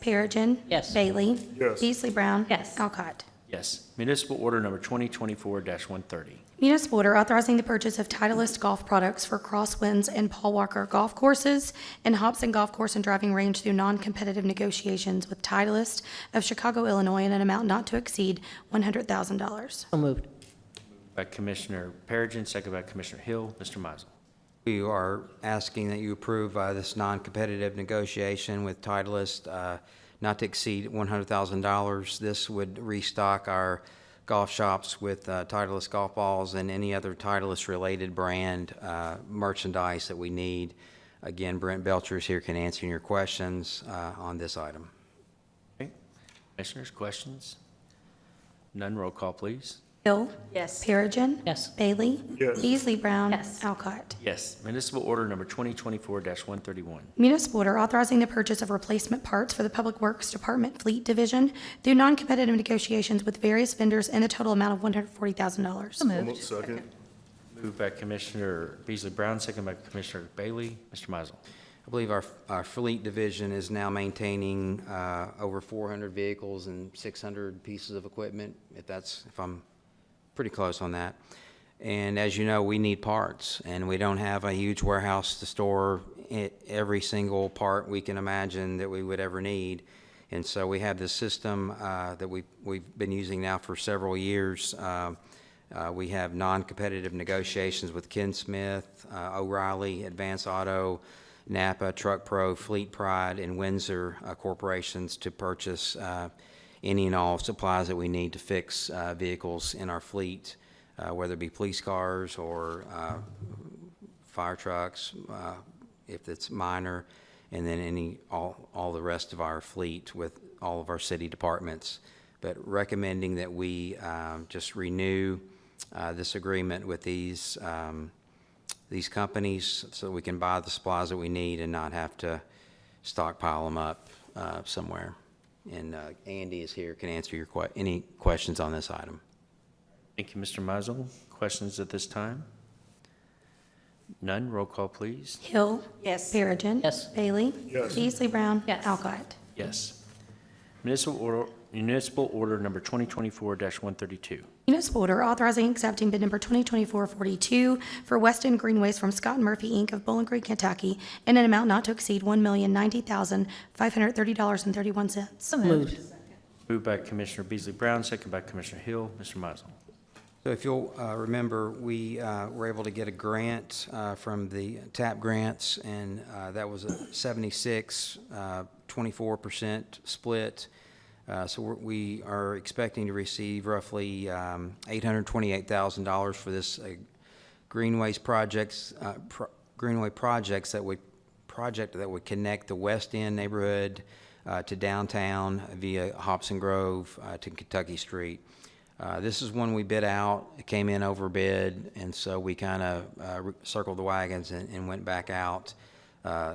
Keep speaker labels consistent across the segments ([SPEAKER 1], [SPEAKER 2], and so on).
[SPEAKER 1] Perigin.
[SPEAKER 2] Yes.
[SPEAKER 1] Bailey.
[SPEAKER 3] Yes.
[SPEAKER 1] Beasley Brown.
[SPEAKER 4] Yes.
[SPEAKER 1] Alcott.
[SPEAKER 5] Yes. Municipal order number 2024-130.
[SPEAKER 1] Municipal order authorizing the purchase of Titleist golf products for Crosswinds and Paul Walker golf courses and Hobson Golf Course and Driving Range through non-competitive negotiations with Titleist of Chicago, Illinois, in an amount not to exceed $100,000.
[SPEAKER 2] So moved.
[SPEAKER 5] By Commissioner Perigin, second by Commissioner Hill. Mr. Mizel.
[SPEAKER 6] We are asking that you approve uh, this non-competitive negotiation with Titleist uh, not to exceed $100,000. This would restock our golf shops with uh, Titleist golf balls and any other Titleist-related brand uh, merchandise that we need. Again, Brent Belcher is here, can answer your questions uh, on this item.
[SPEAKER 5] Okay. Commissioners, questions? None, roll call, please.
[SPEAKER 1] Hill.
[SPEAKER 4] Yes.
[SPEAKER 1] Perigin.
[SPEAKER 2] Yes.
[SPEAKER 1] Bailey.
[SPEAKER 3] Yes.
[SPEAKER 1] Beasley Brown.
[SPEAKER 4] Yes.
[SPEAKER 1] Alcott.
[SPEAKER 5] Yes. Municipal order number 2024-131.
[SPEAKER 1] Municipal order authorizing the purchase of replacement parts for the Public Works Department Fleet Division through non-competitive negotiations with various vendors in the total amount of $140,000.
[SPEAKER 4] So moved.
[SPEAKER 3] Second.
[SPEAKER 5] Moved by Commissioner Beasley Brown, second by Commissioner Bailey. Mr. Mizel.
[SPEAKER 6] I believe our, our fleet division is now maintaining uh, over 400 vehicles and 600 pieces of equipment, if that's, if I'm pretty close on that. And as you know, we need parts, and we don't have a huge warehouse to store e- every single part we can imagine that we would ever need. And so we have this system uh, that we, we've been using now for several years. Uh, uh, We have non-competitive negotiations with Ken Smith, uh, O'Reilly, Advance Auto, Napa, Truck Pro, Fleet Pride, and Windsor uh, Corporations to purchase uh, any and all supplies that we need to fix uh, vehicles in our fleet, uh, whether it be police cars or uh, fire trucks, uh, if it's minor, and then any, all, all the rest of our fleet with all of our city departments. But recommending that we um, just renew uh, this agreement with these, um, these companies so we can buy the supplies that we need and not have to stockpile them up uh, somewhere. And uh, Andy is here, can answer your que, any questions on this item.
[SPEAKER 5] Thank you, Mr. Mizel. Questions at this time? None, roll call, please.
[SPEAKER 1] Hill.
[SPEAKER 4] Yes.
[SPEAKER 1] Perigin.
[SPEAKER 2] Yes.
[SPEAKER 1] Bailey.
[SPEAKER 3] Yes.
[SPEAKER 1] Beasley Brown.
[SPEAKER 4] Yes.
[SPEAKER 1] Alcott.
[SPEAKER 5] Yes. Municipal order, municipal order number 2024-132.
[SPEAKER 1] Municipal order authorizing accepting bid number 2024-42 for Weston Greenways from Scott and Murphy, Inc. of Bowling Green, Kentucky, in an amount not to exceed $1,090,530.31.
[SPEAKER 4] So
[SPEAKER 2] Moved.
[SPEAKER 5] Moved by Commissioner Beasley Brown, second by Commissioner Hill. Mr. Mizel.
[SPEAKER 6] So if you'll uh, remember, we uh, were able to get a grant uh, from the TAP grants, and uh, that was a 76, uh, 24% split. Uh, So we're- we are expecting to receive roughly um, $828,000 for this uh, Greenways projects, uh, pro- Greenway projects that would, project that would connect the West End neighborhood uh, to downtown via Hobson Grove uh, to Kentucky Street. Uh, This is one we bid out, it came in over bid, and so we kind of circled the wagons and and went back out, uh,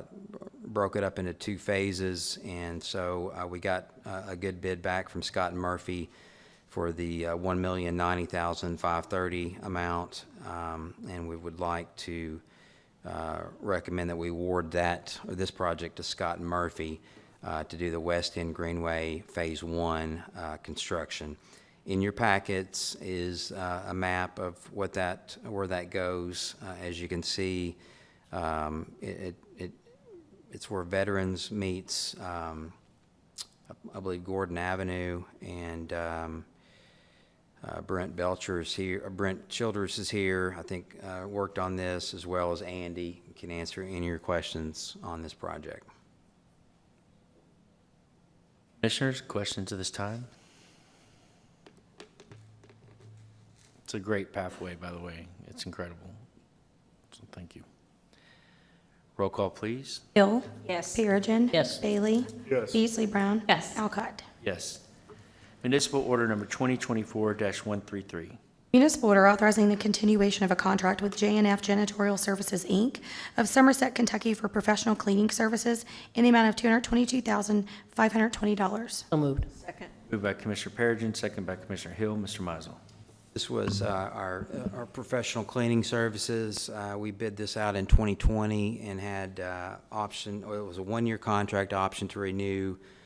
[SPEAKER 6] broke it up into two phases, and so uh, we got uh, a good bid back from Scott and Murphy for the uh, $1,090,530 amount, um, and we would like to uh, recommend that we award that, or this project to Scott and Murphy uh, to do the West End Greenway Phase One uh, construction. In your packets is uh, a map of what that, where that goes. Uh, As you can see, um, it, it- it, it's where Veterans meets, um, I believe Gordon Avenue, and um, uh, Brent Belcher is here, uh, Brent Childers is here, I think, uh, worked on this, as well as Andy, can answer any of your questions on this project.
[SPEAKER 5] Commissioners, questions at this time? It's a great pathway, by the way. It's incredible. So thank you. Roll call, please.
[SPEAKER 1] Hill.
[SPEAKER 4] Yes.
[SPEAKER 1] Perigin.
[SPEAKER 2] Yes.
[SPEAKER 1] Bailey.
[SPEAKER 3] Yes.
[SPEAKER 1] Beasley Brown.
[SPEAKER 4] Yes.
[SPEAKER 1] Alcott.
[SPEAKER 5] Yes. Municipal order number 2024-133.
[SPEAKER 1] Municipal order authorizing the continuation of a contract with JNF Janitorial Services, Inc. of Somerset, Kentucky for professional cleaning services in the amount of $222,520.
[SPEAKER 2] So moved.
[SPEAKER 4] Second.
[SPEAKER 5] Moved by Commissioner Perigin, second by Commissioner Hill. Mr. Mizel.
[SPEAKER 6] This was uh, our, our professional cleaning services. Uh, We bid this out in 2020 and had uh, option, well, it was a one-year contract option to renew